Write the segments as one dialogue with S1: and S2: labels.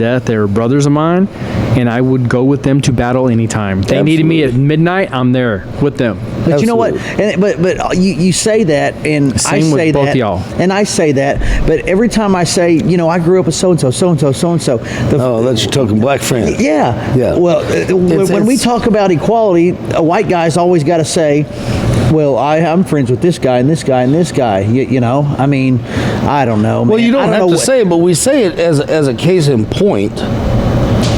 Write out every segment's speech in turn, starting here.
S1: death. They were brothers of mine, and I would go with them to battle anytime. They needed me at midnight. I'm there with them.
S2: But you know what? And, but but you, you say that, and I
S1: Same
S2: say
S1: with both
S2: that,
S1: y'all.
S2: and I say that. But every time I say, you know, I grew up with so and so, so and so, so and so.
S3: Oh, that's your token black friend.
S2: Yeah.
S3: Yeah.
S2: Well, uh, when,
S3: It's-
S2: when we
S3: it's-
S2: talk about equality, a white guy's always got to say, "Well, I, I'm friends with this guy and this guy and this guy." You, you know, I mean, I don't know.
S3: Well,
S2: man.
S3: you
S2: I
S3: don't, have
S2: know
S3: to
S2: what-
S3: say it, but we say it as as a case in point, and,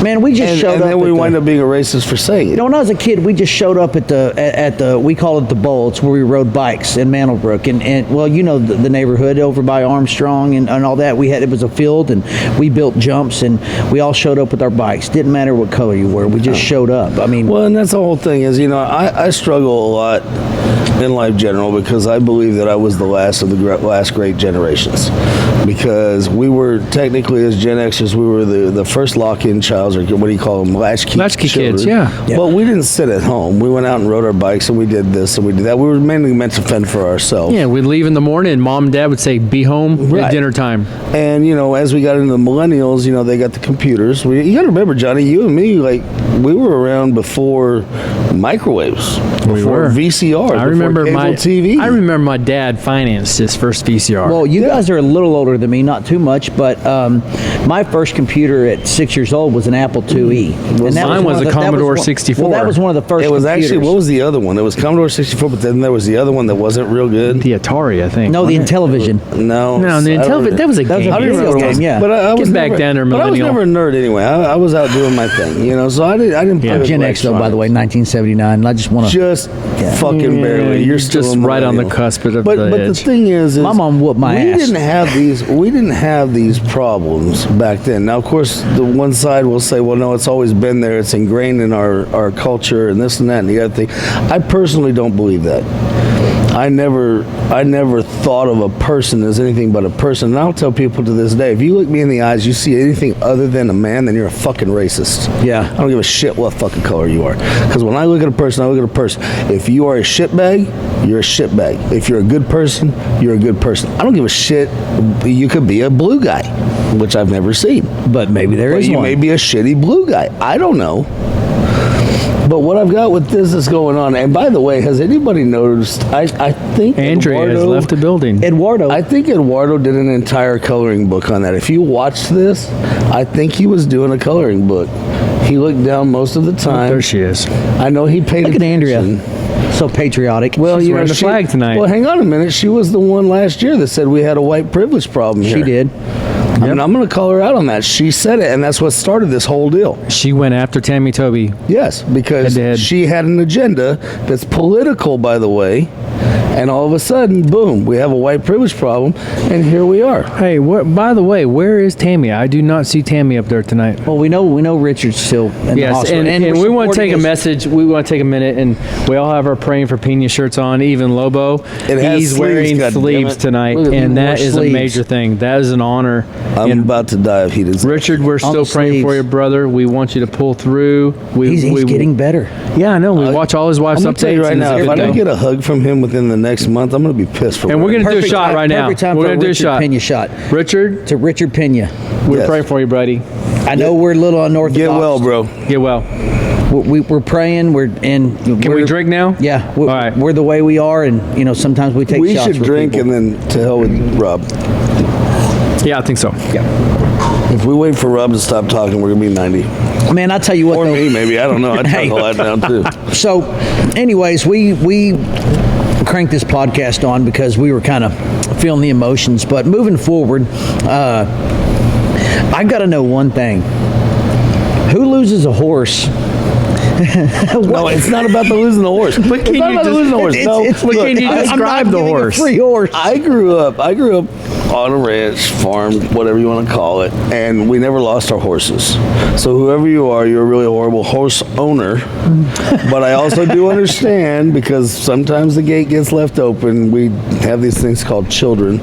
S2: Man, we just showed
S3: and
S2: up.
S3: then we
S2: at the-
S3: wind up being a racist for saying it.
S2: You know, when I was a kid, we just showed up at the at, at the we call it the bowl. It's where we rode bikes in Mantlebrook, and, and well, you know the, the neighborhood over by Armstrong and, and all that. We had it was a field, and we built jumps, and we all showed up with our bikes. Didn't matter what color you were, we just showed up. I mean,
S3: Well, and that's the whole thing is, you know, I, I struggle a lot in life general because I believe that I was the last of the gre- last great generations because we were technically as Gen Xers, we were the, the first lock-in childs or what do you call them, latchkey,
S1: Latchkey kids,
S3: children.
S1: yeah.
S2: Yeah.
S3: But we didn't sit at home. We went out and rode our bikes and we did this and we did that. We were mainly meant to fend for ourselves.
S1: Yeah, we'd leave in the morning, and mom and dad would say, "Be home
S3: Right.
S1: at dinner time."
S3: And you know, as we got into the millennials, you know, they got the computers. We, you got to remember, Johnny, you and me, like we were around before microwaves, before
S1: were.
S3: VCR.
S1: I
S3: before
S1: remember
S3: cable
S1: my
S3: TV.
S1: I remember my dad financed his first VCR.
S2: Well, you guys are a little older than me, not too much, but um, my first computer at six years old was an Apple IIe. And that
S1: Mine
S2: one
S1: was
S2: of
S1: a
S2: that one-
S1: Commodore
S2: Well, that
S1: 64.
S2: was one of the first.
S3: it was
S2: computers.
S3: actually what was the other one? It was Commodore 64, but then there was the other one that wasn't real good.
S1: the Atari, I think.
S2: no the
S1: wasn't it?
S2: Intellivision.
S3: No,
S1: No, the
S3: I don't
S1: Intelli-
S3: remember.
S1: that was a
S2: That was a
S1: game.
S3: I don't
S2: video
S3: remember what it
S2: game,
S3: was.
S2: yeah.
S3: But I, I
S1: Get
S3: was
S1: back
S3: never,
S1: down there,
S3: But I was
S1: millennial.
S3: never a nerd anyway. I, I was out doing my thing, you know. So I didn't. I didn't.
S1: Yeah.
S3: play with
S2: Gen X, though, by the
S3: electronics.
S2: way, 1979. and I just want to.
S3: just fucking barely.
S1: Yeah,
S3: You're
S1: you're
S3: still
S1: just
S3: a
S1: right on the
S3: millennial.
S1: cusp of the
S3: but, But the
S1: edge.
S3: thing is, is
S2: My mom whooped my
S3: we
S2: ass.
S3: didn't have these. We didn't have these problems back then. Now, of course, the one side will say, "Well, no, it's always been there. It's ingrained in our our culture, and this and that and the other thing." I personally don't believe that. I never, I never thought of a person as anything but a person. And I'll tell people to this day: if you look me in the eyes, you see anything other than a man, then you're a fucking racist.
S2: Yeah.
S3: I don't give a shit what fucking color you are. Because when I look at a person, I look at a person. If you are a shitbag, you're a shitbag. If you're a good person, you're a good person. I don't give a shit. You could be a blue guy, which I've never seen.
S2: But maybe there
S3: But
S2: is
S3: you
S2: one.
S3: may be a shitty blue guy. I don't know. But what I've got with this is going on. And by the way, has anybody noticed? I, I think
S1: Andrea has
S3: Eduardo-
S1: left the building.
S2: Eduardo.
S3: I think Eduardo did an entire coloring book on that. If you watch this, I think he was doing a coloring book. He looked down most of the time.
S1: there she is.
S3: I know he paid
S2: Oh, Look at Andrea.
S3: attention.
S2: So patriotic.
S3: Well,
S1: She's
S3: you know,
S1: wearing the
S3: she-
S1: flag tonight.
S3: Well, hang on a minute. She was the one last year that said we had a white privilege problem here.
S2: she did.
S3: I mean, I'm going to call her out on that. She said it, and that's what started this whole deal.
S1: She went after Tammy Toby.
S3: Yes, because
S1: Head-to-head.
S3: she had an agenda that's political, by the way. And all of a sudden, boom, we have a white privilege problem, and here we are.
S1: Hey, what? By the way, where is Tammy? I do not see Tammy up there tonight.
S2: Well, we know we know Richard's still in the
S1: Yes,
S2: hospital.
S1: and, and, we
S2: we're
S1: want to
S2: supporting
S1: take a
S2: his-
S1: message. We want to take a minute, and we all have our praying for Pena shirts on. Even Lobo,
S3: has
S1: he's
S3: sleeves,
S1: wearing
S3: goddammit.
S1: sleeves tonight,
S3: Look at- he
S1: and
S3: wore
S1: that is
S3: sleeves.
S1: a major thing. That is an honor.
S3: I'm
S1: and
S3: about to die of heat. It's-
S1: Richard, we're still praying for
S2: sleeves.
S1: you, brother. We want you to pull through. We,
S2: He's, he's
S1: we,
S2: getting better.
S1: Yeah, I know. We watch all his
S3: Uh, I'm
S1: wife's
S3: gonna
S1: updates.
S3: tell you right
S1: and it's a
S3: now, if
S1: good
S3: I don't
S1: thing.
S3: get a hug from him within the next month, I'm gonna be pissed for.
S1: and we're
S3: wearing
S1: gonna do a
S2: Perfect
S1: shot
S2: time-
S1: right now.
S2: perfect time
S1: we're
S2: for
S1: gonna do a
S2: Richard
S1: shot.
S2: Pena shot.
S1: Richard,
S2: To Richard Pena.
S1: we're
S3: Yes.
S1: praying for you, buddy.
S2: I know we're a little unorthodox.
S3: it. Get well, bro.
S1: Get well.
S2: We, we, we're praying. We're and
S1: Can we drink now?
S2: Yeah, we're,
S1: all right.
S2: we're the way we are, and you know sometimes we take
S3: We
S2: shots.
S3: should
S2: with
S3: drink,
S2: people.
S3: and then to hell with Rob.
S1: Yeah, I think so.
S3: If we wait for Rob to stop talking, we're gonna be 90,
S2: Man, I tell you what,
S3: or
S2: though,
S3: me maybe. I don't know. I talk a lot now too.
S2: so anyways we we cranked this podcast on because we were kind of feeling the emotions but moving forward uh, i gotta know one thing who loses a horse
S3: No, it's not about the losing the horse. But
S1: can
S3: it's
S1: you
S3: not about
S1: just-
S3: the losing the horse.
S2: It's-
S3: no,
S2: it's-
S1: But
S3: look,
S1: can you
S3: I- I'm
S1: describe
S3: not
S1: the
S3: giving a
S1: horse?
S3: free horse. I grew up. I grew up on a ranch, farm, whatever you want to call it, and we never lost our horses. So whoever you are, you're a really horrible horse owner. but I also do understand because sometimes the gate gets left open. We have these things called children,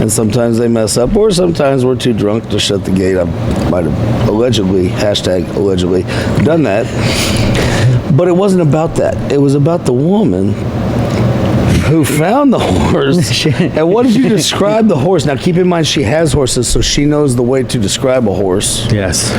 S3: and sometimes they mess up, or sometimes we're too drunk to shut the gate. I might have allegedly hashtag allegedly done that. But it wasn't about that. It was about the woman who found the horse. and what did you describe the horse? Now, keep in mind, she has horses, so she knows the way to describe a horse.
S1: Yes.